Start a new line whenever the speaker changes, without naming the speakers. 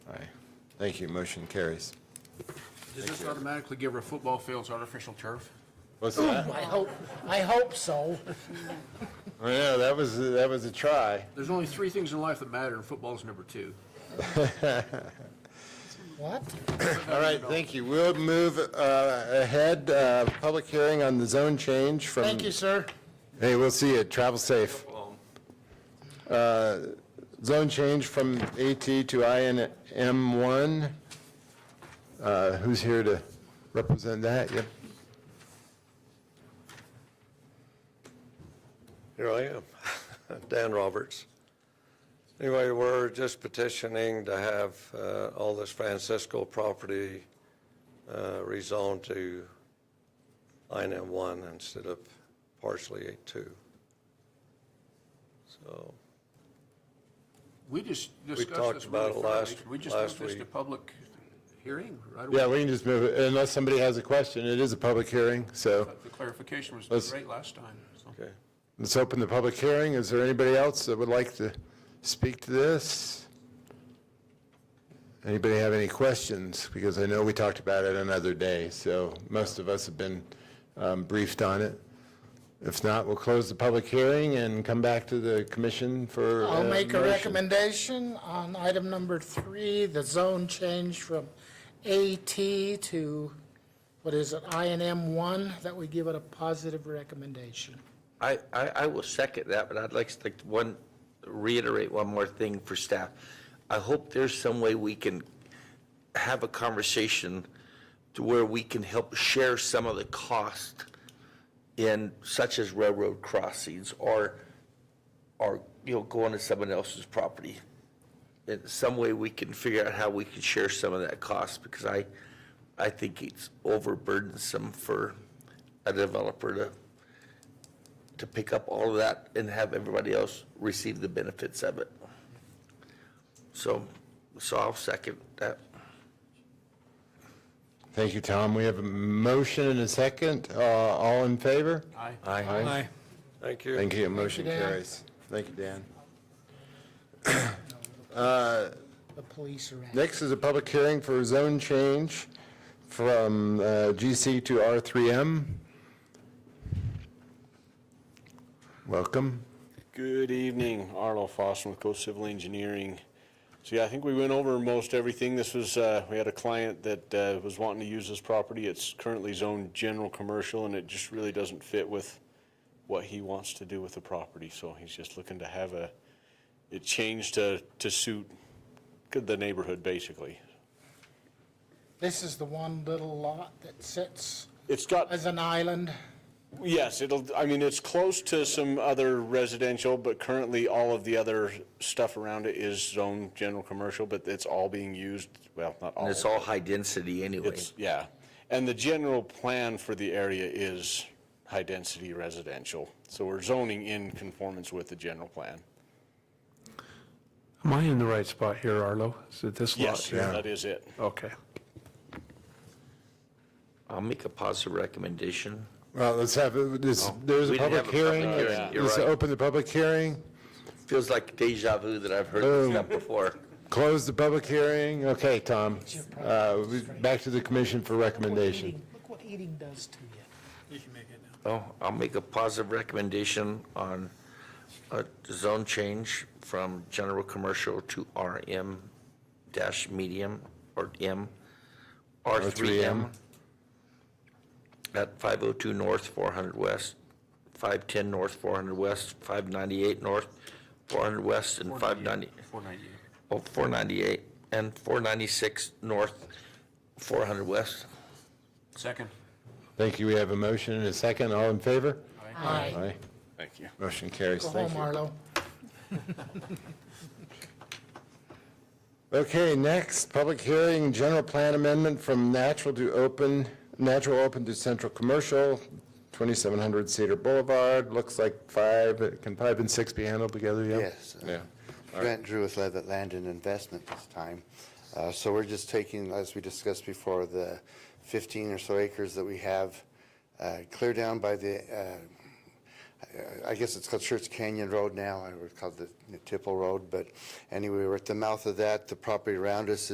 Thank you, motion carries.
Does this automatically give our football fields artificial turf?
What's that?
I hope, I hope so.
Well, yeah, that was, that was a try.
There's only three things in life that matter, and football's number two.
What?
All right, thank you. We'll move uh, ahead, uh, public hearing on the zone change from.
Thank you, sir.
Hey, we'll see you. Travel safe. Uh, Zone change from AT to INM1. Uh, Who's here to represent that? Yep.
Here I am, Dan Roberts. Anyway, we're just petitioning to have uh, all this Francisco property uh, rezoned to INM one instead of partially eight two. So,
We just discussed
talked
this
about
really
it
thoroughly.
last-
We just
last
moved this to
week.
public hearing right away.
Yeah, we can just move it, unless somebody has a question. It is a public hearing, so
But The clarification was
Let's-
great last time. so.
okay.
let's open the public hearing. Is there anybody else that would like to speak to this? Anybody have any questions? Because I know we talked about it another day, so most of us have been um, briefed on it. If not, we'll close the public hearing and come back to the commission for.
I'll
uh,
make a
motion.
recommendation on item number three, the zone change from AT to, what is it, I and M one, that we give it a positive recommendation.
I, I, I will second that, but I'd like to like to one, reiterate one more thing for staff. I hope there's some way we can have a conversation to where we can help share some of the cost in such as railroad crossings or, or, you know, going to someone else's property. In some way, we can figure out how we can share some of that cost because I, I think it's overburdensome for a developer to to pick up all of that and have everybody else receive the benefits of it. So, so I'll second that.
Thank you, Tom. We have a motion and a second. Uh, All in favor?
Aye.
Aye.
Thank you.
Thank you. Motion
Dan.
carries. Thank you, Dan.
The police are at. it.
Next is a public hearing for zone change from uh, GC to R3M. Welcome.
Good evening, Arnold Foster with Coast Civil Engineering. So yeah, I think we went over most everything. This was, uh, we had a client that uh, was wanting to use this property. It's currently zoned general commercial and it just really doesn't fit with what he wants to do with the property. So he's just looking to have a, it changed to, to suit the neighborhood basically.
This is the one little lot that sits
It's got
as an island.
Yes, it'll, I mean, it's close to some other residential, but currently all of the other stuff around it is zone general commercial, but it's all being used, well, not all.
And it's all high density anyway.
It's, yeah. And the general plan for the area is high-density residential. So we're zoning in conformance with the general plan.
Am I in the right spot here, Arlo? Is it this lot?
Yes, that is it.
Okay.
I'll make a positive recommendation.
Well, let's have, this- there's a
We
public
didn't have a public
hearing.
hearing.
Let's
You're
let's
right.
open the public hearing,
Feels like deja vu that I've heard this stuff before.
close the public hearing. Okay, Tom. Uh, we- Back to the commission for recommendation.
Look what eating does to you.
Oh, I'll make a positive recommendation on a zone change from general commercial to RM dash medium or M, R3M
R3M.
at 502 North, 400 West, 510 North, 400 West, 598 North, 400 West, and 590,
498.
oh, 498, and 496 North, 400 West.
Second.
Thank you. We have a motion and a second. All in favor?
Aye.
Aye.
Thank you.
Motion carries.
Go
Thank
home,
you.
Arlo.
Okay, next, public hearing, general plan amendment from natural to open, natural open to central commercial, 2700 Cedar Boulevard, looks like five, can five and six be handled together, yeah?
Yes. uh,
Yeah.
Grant Drew led at Land and Investment this time. Uh, So we're just taking, as we discussed before, the 15 or so acres that we have uh, clear down by the, uh, I- I guess it's called Church Canyon Road now, I would call it the Tipple Road, but anyway, we're at the mouth of that. The property around us